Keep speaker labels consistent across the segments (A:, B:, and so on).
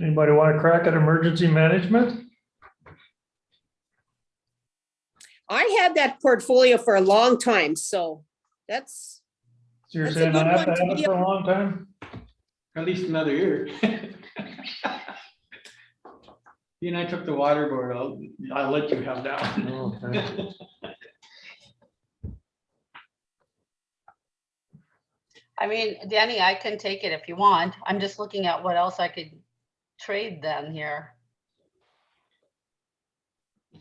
A: Anybody want to crack at emergency management?
B: I had that portfolio for a long time, so that's,
A: So you're
B: That's a
A: saying I
B: good
A: have to
B: one to
A: have it
B: be
A: for a long time?
C: At least another year. You and I took the water board, I'll, I'll let you have that one.
A: Okay.
D: I mean, Danny, I can take it if you want. I'm just looking at what else I could trade then here.
E: Is-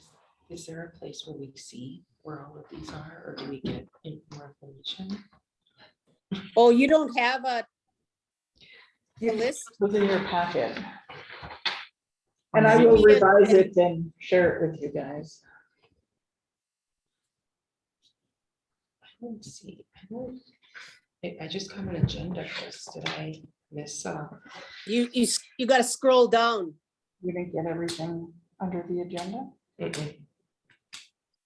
E: Is there a place where we see where all of these are, or do we get in- more information?
B: oh, you don't have a a list?
F: within your packet.
A: And
F: And I
A: I
F: will
B: think it-
F: revise it and share it with you guys.
E: I don't see, I don't, I, I just got an agenda first, did I miss, uh,
B: You, you, s- you gotta scroll down.
F: You didn't get everything under the agenda?
E: mm-mm.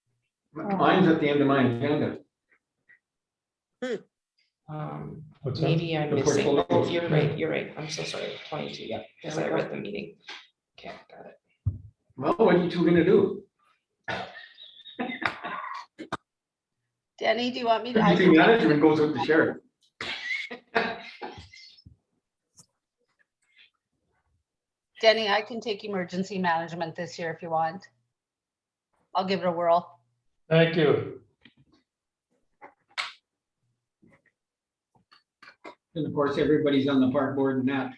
C: Mine's at the end of my agenda.
E: um,
A: What's that?
E: maybe I'm
C: The
E: missing, Oh,
C: portfolio.
E: you're right, you're right, I'm so sorry, twenty-two, yeah, because I read the meeting. Okay, got it.
C: Well, what are you two gonna do?
D: Danny, do you want me to? I
C: Emergency
D: can-
C: management goes with the sheriff.
D: Danny, I can take emergency management this year if you want. I'll give it a whirl.
A: Thank you.
C: And of course, everybody's on the park board and that.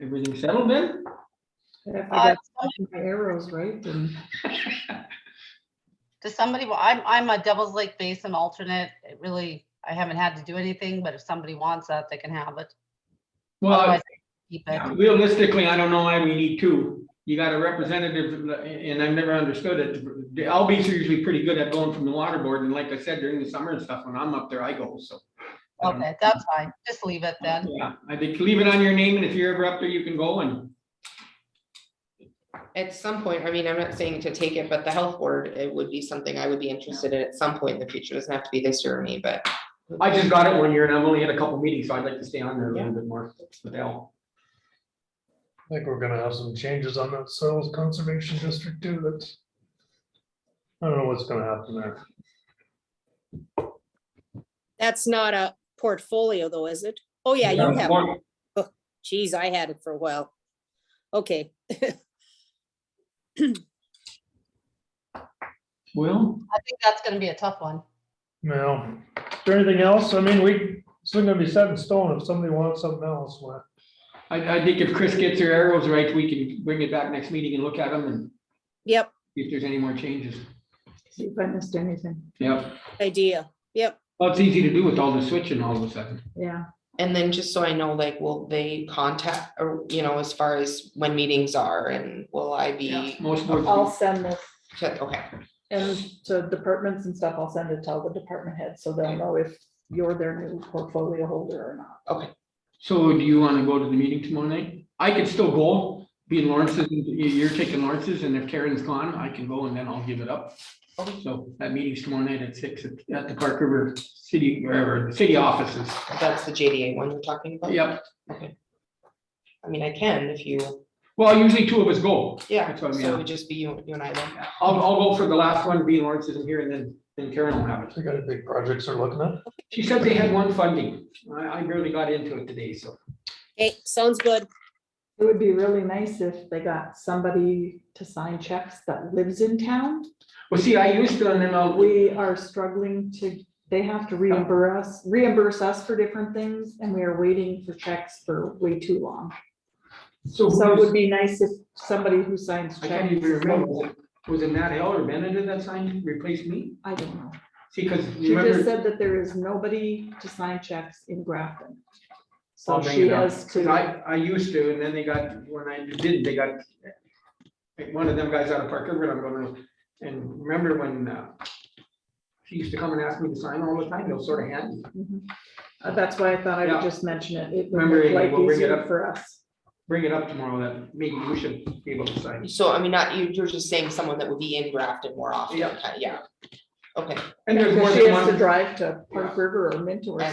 C: Everything settled then?
F: If
D: Uh,
F: I got my arrows right, then
D: Does somebody, well, I'm, I'm a Devil's Lake Basin alternate. It really, I haven't had to do anything, but if somebody wants that, they can have it.
C: Well,
D: Otherwise, keep it.
C: realistically, I don't know why we need two. You got a representative, and I've never understood it. The LBs are usually pretty good at going from the water board, and like I said, during the summer and stuff, when I'm up there, I go, so. I don't-
D: Okay, that's fine. Just leave it then.
C: Yeah, I think leave it on your name, and if you're ever up there, you can go and,
E: At some point, I mean, I'm not saying to take it, but the health board, it would be something I would be interested in at some point in the future, doesn't have to be this year or me, but.
C: I just got it one year, and I've only had a couple meetings, so I'd like to stay on there a little bit more with Al.
A: I think we're gonna have some changes on that soils conservation district too. That's. I don't know what's gonna happen there.
B: That's not a portfolio though, is it? Oh, yeah, you have. it. Geez, I had it for a while. Okay,
C: Well,
D: I think that's gonna be a tough one.
A: Now, is there anything else? I mean, we, it's not gonna be set in stone. If somebody wants something else, well,
C: I, I think if Chris gets her arrows right, we can bring it back next meeting and look at them and
B: yep,
C: see if there's any more changes.
F: see if I missed anything.
C: Yep,
B: idea, yep.
C: well, it's easy to do with all the switching all of a sudden.
F: Yeah,
E: And then just so I know, like, will they contact, or, you know, as far as when meetings are and will I be?
C: Most boards. do.
F: I'll send this,
E: check- Okay,
F: and to departments and stuff, I'll send it to all the department heads, so they'll know if you're their new portfolio holder or not.
E: okay,
C: So do you want to go to the meeting tomorrow night? I could still go, being Lawrence's, and you- you're taking Lawrence's, and if Karen's gone, I can go and then I'll give it up. So that meeting's tomorrow night at six at at the Park River City, wherever, the city offices.
E: that's the JDA one you're talking about?
C: Yep,
E: I mean, I can if you,
C: well, usually two of us go.
E: yeah,
C: That's what I
E: so
C: mean.
E: it would just be you, you and I then.
C: I'll, I'll go for the last one, being Lawrence isn't here, and then, then Karen will have it.
A: they got any big projects they're looking at.
C: She said they had one funding. I, I barely got into it today, so.
B: Hey, sounds good.
F: It would be really nice if they got somebody to sign checks that lives in town.
C: Well, see, I used to, and then I'll,
F: We are struggling to, they have to reimburse us, reimburse us for different things, and we are waiting for checks for way too long.
C: so.
F: So it
C: who's-
F: would be nice if somebody who signs
C: I can't
F: checks.
C: even remember. Was it Matt Hill or Benedict that signed, replaced me?
F: I don't know.
C: See, because
F: She just
C: remember,
F: said that there is nobody to sign checks in Grafton.
C: I'll
F: So
C: bring
F: she
C: it up.
F: has
C: 'Cause
F: to,
C: I, I used to, and then they got, when I didn't, they got, like, one of them guys out of Park River, I'm going, and remember when, uh, she used to come and ask me to sign all the time, they'll sort of hand. me.
F: Mhm. Uh, that's why I thought I
C: Yeah.
F: would just mention it. It would
C: Remember,
F: make life
C: we'll bring it
F: easier
C: up.
F: for us.
C: Bring it up tomorrow, that maybe you should be able to sign.
E: So I mean, not, you, you're just saying someone that would be in Grafton more often,
C: Yeah.
E: kind of, yeah. Okay.
C: And there's more
F: Because she
C: than
F: has to
C: one.
F: drive to Park River or Minto or